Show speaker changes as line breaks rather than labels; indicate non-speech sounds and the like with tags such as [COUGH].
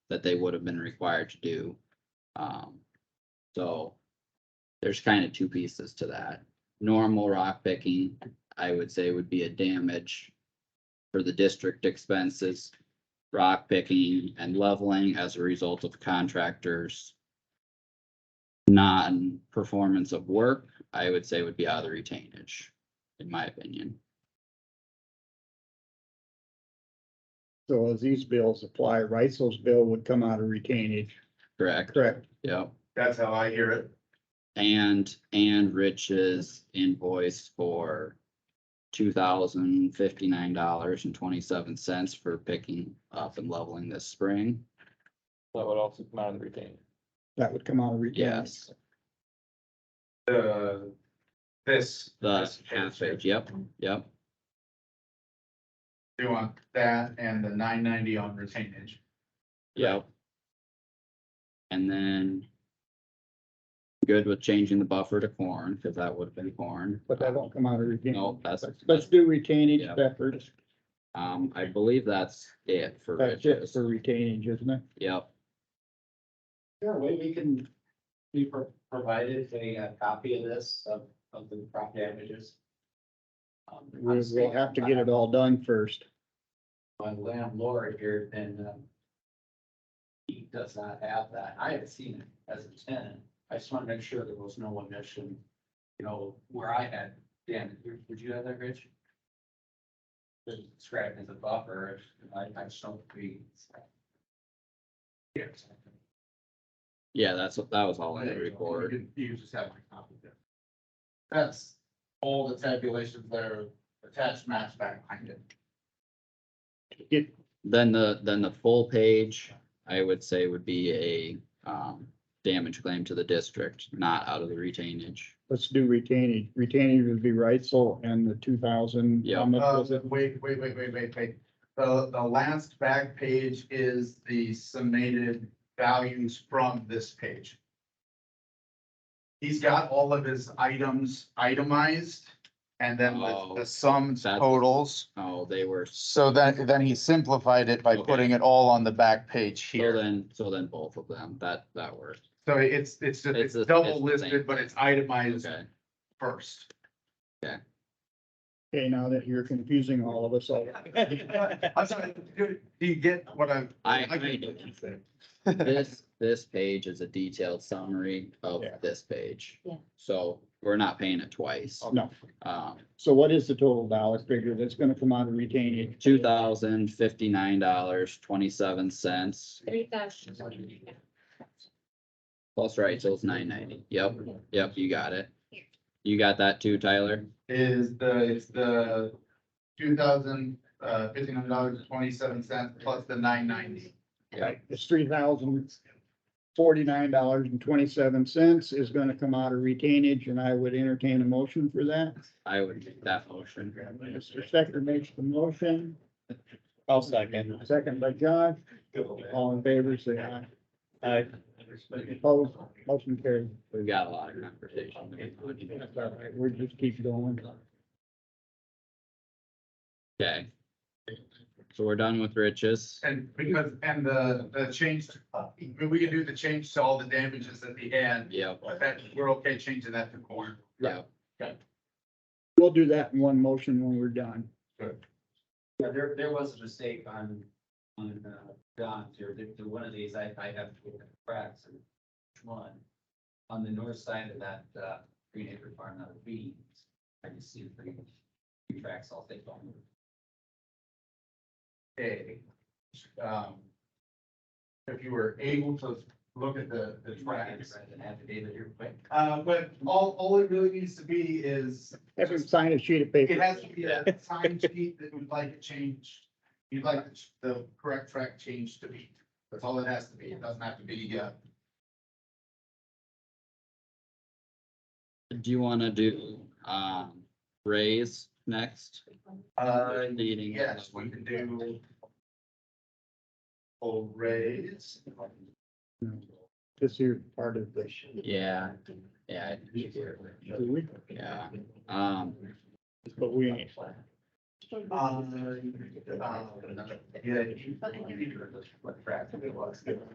that they would have been required to do. Um, so there's kind of two pieces to that. Normal rock picking, I would say would be a damage for the district expenses, rock picking and leveling as a result of contractors non-performance of work, I would say would be out of the retainage, in my opinion.
So as these bills apply, Reisel's bill would come out of retainage,
Correct?
correct?
Yep.
That's how I hear it.
And, and Rich's invoice for two thousand fifty-nine dollars and twenty-seven cents for picking up and leveling this spring.
That would also come out of the retained.
That would come out of retainage.
Yes,
The, this.
the half page, yep, yep,
You want that and the nine ninety on retainage.
yep. And then good with changing the buffer to corn, because that would have been corn.
But that won't come out of retainage.
No, that's,
Let's- Let's do retainage
Yeah.
efforts.
um, I believe that's it for
That's it
Rich's.
for retainage, isn't it?
Yep,
there a way we can be pro- provided a uh, copy of this, of, of the crop damages? Um,
We'll we'll have to get it all done first.
My landlord here, and, um, he does not have that. I have seen it as a tenant. I just want to make sure there was no omission, you know, where I had, Dan, would you have that, Rich? Described as a buffer, I, I just don't be. Yes.
yeah, that's, what that was all in the report.
You just have my copy there. That's all the tabulations that are attached maps back behind it.
Get,
Then the, then the full page, I would say would be a, um, damage claim to the district, not out of the retainage.
let's do retainage. Retainage would be Reisel and the two thousand.
Yeah.
How much
Uh,
was it?
wait, wait, wait, wait, wait, wait. The, the last back page is the summated values from this page. He's got all of his items itemized and then
Oh,
the, the sums
that's-
totals.
Oh, they were, so
So then, then he simplified it by
Okay.
putting it all on the back page here.
then, so then both of them, that, that worked,
So it's, it's,
It's
just- it's
the- it's the
double
same
listed, but
thing.
it's itemized
okay.
first.
Okay, now that you're confusing all of
[LAUGHS]
us all.
I'm sorry, do do you get what I'm?
I- I do. [LAUGHS]
[LAUGHS]
This, this page is a detailed summary of
Yeah.
this page.
Yeah.
So we're not paying it twice.
No.
Um,
So what is the total dollar figure that's gonna come out of retainage?
two thousand fifty-nine dollars, twenty-seven cents,
Three thousand.
plus Rachel's nine ninety. Yep, yep, you got it. You got that too, Tyler?
is the, it's the two thousand, uh, fifteen hundred dollars and twenty-seven cents plus the nine ninety.
Yeah.
It's three thousand forty-nine dollars and twenty-seven cents is gonna come out of retainage, and I would entertain a motion for that.
I would make that motion.
Mr. Stecker makes the motion,
I'll second.
second by Josh, all in favor, say aye.
I,
Opposed, motion carried.
We've got a lot of conversation.
That's all right, we just keep going.
Okay. So we're done with riches.
And because, and the, the change, we, we can do the change to all the damages at the end,
Yep,
but that, we're okay changing that to corn.
yep.
We'll do that in one motion when we're done.
Yeah, there, there was a mistake on, on, uh, Don's here, there, there- one of these, I, I have to look at the cracks and which one. On the north side of that, uh, Green Acre Farm, not a B, I can see three, three tracks, I'll take them.
A. Um, if you were able to look at the, the tracks.
And have David here quick.
Uh, but all, all it really needs to be is
Have him sign a sheet of paper.
It has to be a time sheet that you'd like to change, you'd like the ch- the correct track change to be. That's all it has to be. It doesn't have to be, uh,
Do you wanna do, um, raise next?
uh,
Leading.
yes, we can do. Full raise.
This here part of the.
Yeah, yeah,
Do we?
yeah. Um,
But we ain't.
Um, uh, Yeah.
What crack it was.